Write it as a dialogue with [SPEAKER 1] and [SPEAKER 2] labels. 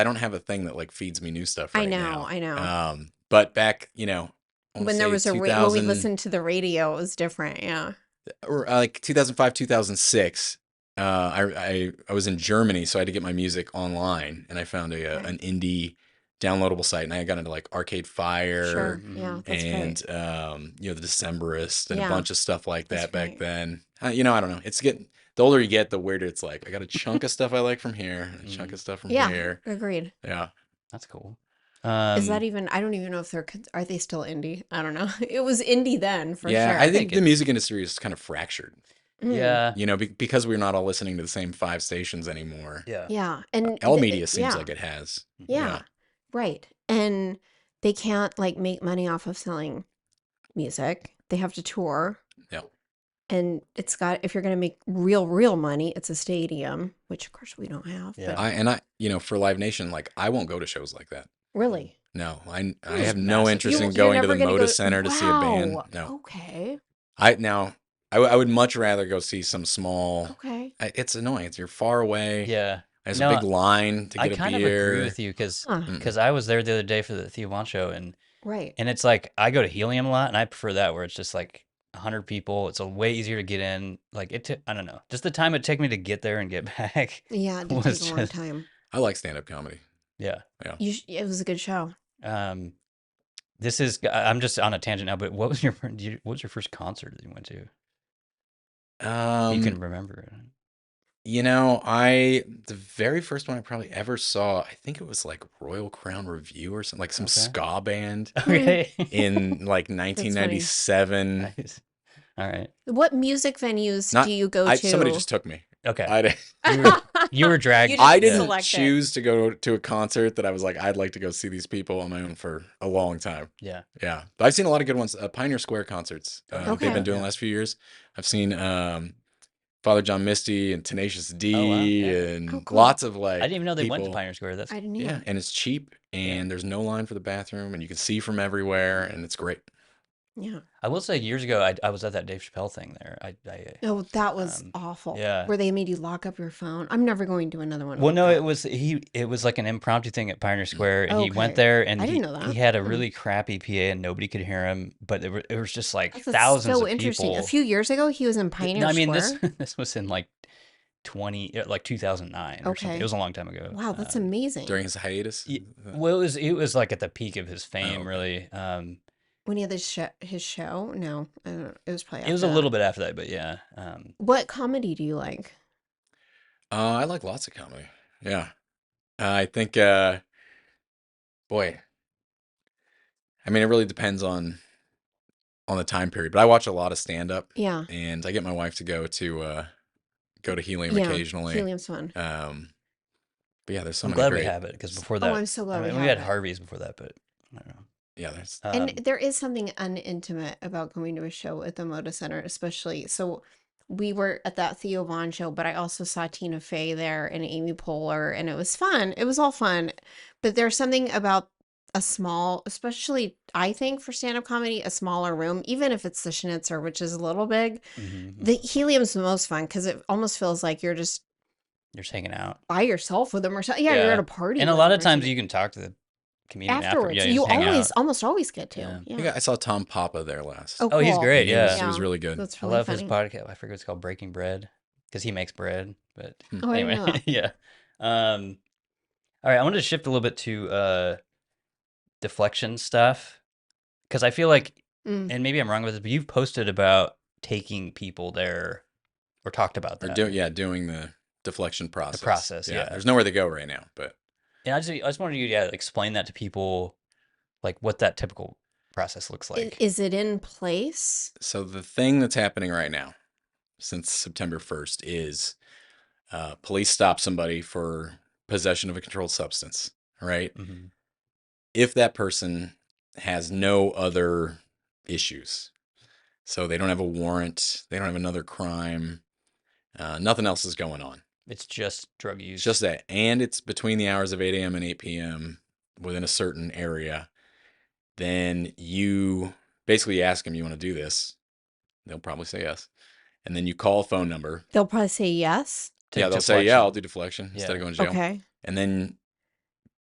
[SPEAKER 1] I don't have a thing that like feeds me new stuff. Right
[SPEAKER 2] I know,
[SPEAKER 1] now.
[SPEAKER 2] I know.
[SPEAKER 1] Um, but back, you know, I wanna
[SPEAKER 2] when there
[SPEAKER 1] say
[SPEAKER 2] was a ra- when we
[SPEAKER 1] 2000
[SPEAKER 2] listened to the radio, it was different. Yeah.
[SPEAKER 1] or uh, like 2005, 2006. Uh, I, I I was in Germany, so I had to get my music online, and I found a, uh
[SPEAKER 2] Okay.
[SPEAKER 1] an indie downloadable site, and I got into like Arcade Fire,
[SPEAKER 2] Sure.
[SPEAKER 3] Mhm.
[SPEAKER 2] Yeah. That's
[SPEAKER 1] Mm-hmm. and um, you know the Decemberists and
[SPEAKER 2] Yeah.
[SPEAKER 1] a bunch of stuff like
[SPEAKER 2] That's
[SPEAKER 1] that back
[SPEAKER 2] right.
[SPEAKER 1] then. Uh, you know, I don't know. It's getting the older you get, the weirder it's like. I got a chunk of stuff I like from here, and a chunk of stuff from
[SPEAKER 2] Mm. Yeah.
[SPEAKER 1] here.
[SPEAKER 2] great. Agreed.
[SPEAKER 1] Yeah,
[SPEAKER 3] That's cool. Um,
[SPEAKER 2] Is that even? I don't even know if they're con- are they still indie. I don't know. It was indie then for
[SPEAKER 1] yeah.
[SPEAKER 2] sure.
[SPEAKER 1] I think
[SPEAKER 3] think
[SPEAKER 1] the
[SPEAKER 3] it-
[SPEAKER 1] music industry is kind of fractured.
[SPEAKER 2] Mm.
[SPEAKER 3] yeah.
[SPEAKER 1] You know, be- because we're not all listening to the same five stations anymore.
[SPEAKER 3] Yeah.
[SPEAKER 2] Yeah. And
[SPEAKER 1] L
[SPEAKER 2] the-
[SPEAKER 1] Media seems
[SPEAKER 2] yeah.
[SPEAKER 1] like it has.
[SPEAKER 2] Yeah.
[SPEAKER 1] Yeah.
[SPEAKER 2] Right. And they can't like make money off of selling music. They have to tour.
[SPEAKER 1] Yeah.
[SPEAKER 2] And it's got if you're going to make real real money, it's a stadium, which of course we don't have.
[SPEAKER 3] Yeah.
[SPEAKER 2] But
[SPEAKER 1] I and I, you know, for Live Nation, like I won't go to shows like that.
[SPEAKER 2] really,
[SPEAKER 1] No, I I
[SPEAKER 3] Just
[SPEAKER 1] have no
[SPEAKER 3] massive.
[SPEAKER 1] interest
[SPEAKER 2] You-
[SPEAKER 1] in
[SPEAKER 2] you're
[SPEAKER 1] going to
[SPEAKER 2] never
[SPEAKER 1] the
[SPEAKER 2] gonna
[SPEAKER 1] Moda
[SPEAKER 2] go-
[SPEAKER 1] Center to see a band.
[SPEAKER 2] Wow. Oh.
[SPEAKER 1] No,
[SPEAKER 2] Okay.
[SPEAKER 1] I now I, w- I would much rather go see some small.
[SPEAKER 2] Okay.
[SPEAKER 1] I, it's annoying. It's you're far away.
[SPEAKER 3] Yeah.
[SPEAKER 1] there's
[SPEAKER 3] No,
[SPEAKER 1] a big line to
[SPEAKER 3] I
[SPEAKER 1] get a
[SPEAKER 3] kind
[SPEAKER 1] beer.
[SPEAKER 3] of agree with you because
[SPEAKER 2] Huh.
[SPEAKER 1] Mm.
[SPEAKER 3] I was there the other day for the Theo Von show and
[SPEAKER 2] Right.
[SPEAKER 3] and it's like I go to Helium a lot and I prefer that where it's just like hundred people. It's a way easier to get in. Like it. I I don't know. Just the time it took me to get there and get back.
[SPEAKER 2] yeah, it did
[SPEAKER 3] was
[SPEAKER 2] take a long
[SPEAKER 3] just-
[SPEAKER 2] time.
[SPEAKER 1] I like stand up comedy.
[SPEAKER 3] yeah.
[SPEAKER 2] You sh- it was a good show.
[SPEAKER 3] Um, this is. I- I'm just on a tangent now. But what was your fir- do you- what was your first concert that you went to?
[SPEAKER 1] Um,
[SPEAKER 3] you
[SPEAKER 1] you,
[SPEAKER 3] can remember it.
[SPEAKER 1] know, I the very first one I probably ever saw. I think it was like Royal Crown Review or something, like some
[SPEAKER 3] Okay.
[SPEAKER 1] ska band
[SPEAKER 2] Hmm.
[SPEAKER 3] Okay.
[SPEAKER 1] in like 1997.
[SPEAKER 3] nice. All right.
[SPEAKER 2] What music venues
[SPEAKER 1] Not-
[SPEAKER 2] do you go
[SPEAKER 1] I,
[SPEAKER 2] to?
[SPEAKER 1] somebody just took me.
[SPEAKER 3] Okay.
[SPEAKER 1] I didn't.
[SPEAKER 3] you, were, you were dragged.
[SPEAKER 2] You just
[SPEAKER 1] I didn't
[SPEAKER 2] select it.
[SPEAKER 1] choose to go to a concert that I was like, I'd like to go see these people on my own for a long time.
[SPEAKER 3] Yeah.
[SPEAKER 1] Yeah. But I've seen a lot of good ones. Uh, Pioneer Square concerts uh, that they've
[SPEAKER 2] Okay.
[SPEAKER 1] been doing the last few years. I've seen um, Father John Misty and Tenacious D
[SPEAKER 3] wow. Yeah.
[SPEAKER 1] and
[SPEAKER 2] Oh, cool.
[SPEAKER 1] lots of like.
[SPEAKER 3] I didn't even know they went to
[SPEAKER 1] people-
[SPEAKER 3] Pioneer Square. That's
[SPEAKER 2] I didn't
[SPEAKER 1] Yeah.
[SPEAKER 2] even.
[SPEAKER 1] And it's cheap and there's no line for the bathroom and you can see from everywhere and it's great.
[SPEAKER 2] Yeah.
[SPEAKER 3] I will say years ago I, I was at that Dave Chappelle thing there. I, I
[SPEAKER 2] Oh, that was
[SPEAKER 3] Um,
[SPEAKER 2] awful.
[SPEAKER 3] yeah.
[SPEAKER 2] Where they made you lock up your phone. I'm never going to another one.
[SPEAKER 3] well
[SPEAKER 2] like
[SPEAKER 3] no
[SPEAKER 2] that.
[SPEAKER 3] it was he it was like an impromptu thing at Pioneer Square and he
[SPEAKER 2] Okay.
[SPEAKER 3] went there and
[SPEAKER 2] I
[SPEAKER 3] he,
[SPEAKER 2] didn't know that.
[SPEAKER 3] he had a
[SPEAKER 2] Mm.
[SPEAKER 3] really crappy PA and nobody could hear him but it, were, it was just like
[SPEAKER 2] That's what's
[SPEAKER 3] thousands
[SPEAKER 2] so
[SPEAKER 3] of
[SPEAKER 2] interesting.
[SPEAKER 3] people.
[SPEAKER 2] A few years ago, he was in Pioneer
[SPEAKER 3] no, I mean
[SPEAKER 2] Square.
[SPEAKER 3] this this was in like 20 uh, like 2009 or something.
[SPEAKER 2] Okay.
[SPEAKER 3] It was a long time ago.
[SPEAKER 2] wow, that's
[SPEAKER 3] Um,
[SPEAKER 2] amazing.
[SPEAKER 1] During his hiatus.
[SPEAKER 3] y-
[SPEAKER 1] uh,
[SPEAKER 3] Well, it was it was like at the peak of his
[SPEAKER 1] Oh,
[SPEAKER 3] fame,
[SPEAKER 1] okay.
[SPEAKER 3] really. Um,
[SPEAKER 2] when he had his show, his show. No, I don't know. It was probably.
[SPEAKER 3] it was a
[SPEAKER 2] after that.
[SPEAKER 3] little bit after that, but yeah. Um,
[SPEAKER 2] What comedy do you like?
[SPEAKER 1] Uh, I like lots of comedy. Yeah. I think, uh, boy, I mean, it really depends on, on the time period, but I watch a lot of stand up
[SPEAKER 2] Yeah,
[SPEAKER 1] and I get my wife to go to, uh, go to Helium
[SPEAKER 2] Yeah,
[SPEAKER 1] occasionally.
[SPEAKER 2] Helium's fun.
[SPEAKER 1] Um, but yeah, there's so
[SPEAKER 3] I'm
[SPEAKER 1] many
[SPEAKER 3] glad
[SPEAKER 1] great,
[SPEAKER 3] we have it because before that,
[SPEAKER 2] oh, I'm so
[SPEAKER 3] I
[SPEAKER 2] glad
[SPEAKER 3] mean,
[SPEAKER 2] we,
[SPEAKER 3] we had
[SPEAKER 2] have it.
[SPEAKER 3] Harvey's before that, but I don't know.
[SPEAKER 1] yeah, there's,
[SPEAKER 3] Um,
[SPEAKER 2] And there is something unintimate about going to a show at the Moda Center, especially. So we were at that Theo Vaughn show, but I also saw Tina Fey there and Amy Poehler, and it was fun. It was all fun. But there's something about a small, especially I think for stand up comedy, a smaller room, even if it's the Schnitzer, which is a little big.
[SPEAKER 3] mhm,
[SPEAKER 2] The Helium's the most fun because it almost feels like you're just
[SPEAKER 3] you're just hanging out,
[SPEAKER 2] by yourself with them or something. Yeah, you're
[SPEAKER 3] Yeah.
[SPEAKER 2] at a party.
[SPEAKER 3] and a
[SPEAKER 2] with
[SPEAKER 3] lot
[SPEAKER 2] them
[SPEAKER 3] of
[SPEAKER 2] or
[SPEAKER 3] times
[SPEAKER 2] something.
[SPEAKER 3] you can talk to the comedian
[SPEAKER 2] afterwards,
[SPEAKER 3] After, yeah,
[SPEAKER 2] you
[SPEAKER 3] just hang
[SPEAKER 2] always,
[SPEAKER 3] out.
[SPEAKER 2] almost always get to.
[SPEAKER 3] Yeah.
[SPEAKER 1] I think I saw Tom Papa there last.
[SPEAKER 3] Oh, he's
[SPEAKER 2] cool.
[SPEAKER 3] great.
[SPEAKER 1] He was-
[SPEAKER 3] Yeah,
[SPEAKER 1] He was
[SPEAKER 2] Yeah.
[SPEAKER 1] really good.
[SPEAKER 2] That's
[SPEAKER 3] I
[SPEAKER 2] really
[SPEAKER 3] love
[SPEAKER 2] funny.
[SPEAKER 3] his podcast. I forget what it's called, Breaking Bread, because he makes bread. But
[SPEAKER 2] Oh, I didn't know
[SPEAKER 3] anyway,
[SPEAKER 2] that.
[SPEAKER 3] yeah. Um, all right, I wanted to shift a little bit to uh, deflection stuff because I feel like
[SPEAKER 2] Mm.
[SPEAKER 3] and maybe I'm wrong with this, but you've posted about taking people there or talked about
[SPEAKER 1] Or
[SPEAKER 3] that.
[SPEAKER 1] do, yeah, doing the deflection process.
[SPEAKER 3] process, yeah.
[SPEAKER 1] There's nowhere to go right now, but
[SPEAKER 3] and I just, I just wanted you to yeah, explain that to people, like what that typical process looks
[SPEAKER 2] I-
[SPEAKER 3] like.
[SPEAKER 2] Is it in place?
[SPEAKER 1] so the thing that's happening right now since september 1st is uh, police stop somebody for possession of a controlled substance right
[SPEAKER 3] Mhm.
[SPEAKER 1] if that person has no other issues so they don't have a warrant they don't have another crime uh, nothing else is going on
[SPEAKER 3] It's just drug use.
[SPEAKER 1] it's just that. And it's between the hours of 8 a.m. and 8 p.m. within a certain area. Then you basically ask them, you want to do this? They'll probably say yes. And then you call a phone number.
[SPEAKER 2] They'll probably say yes.
[SPEAKER 3] to
[SPEAKER 1] yeah, they'll say, yeah, I'll
[SPEAKER 3] deflection.
[SPEAKER 1] do deflection
[SPEAKER 3] Yeah.
[SPEAKER 1] instead of going to jail.
[SPEAKER 2] Okay.
[SPEAKER 1] And then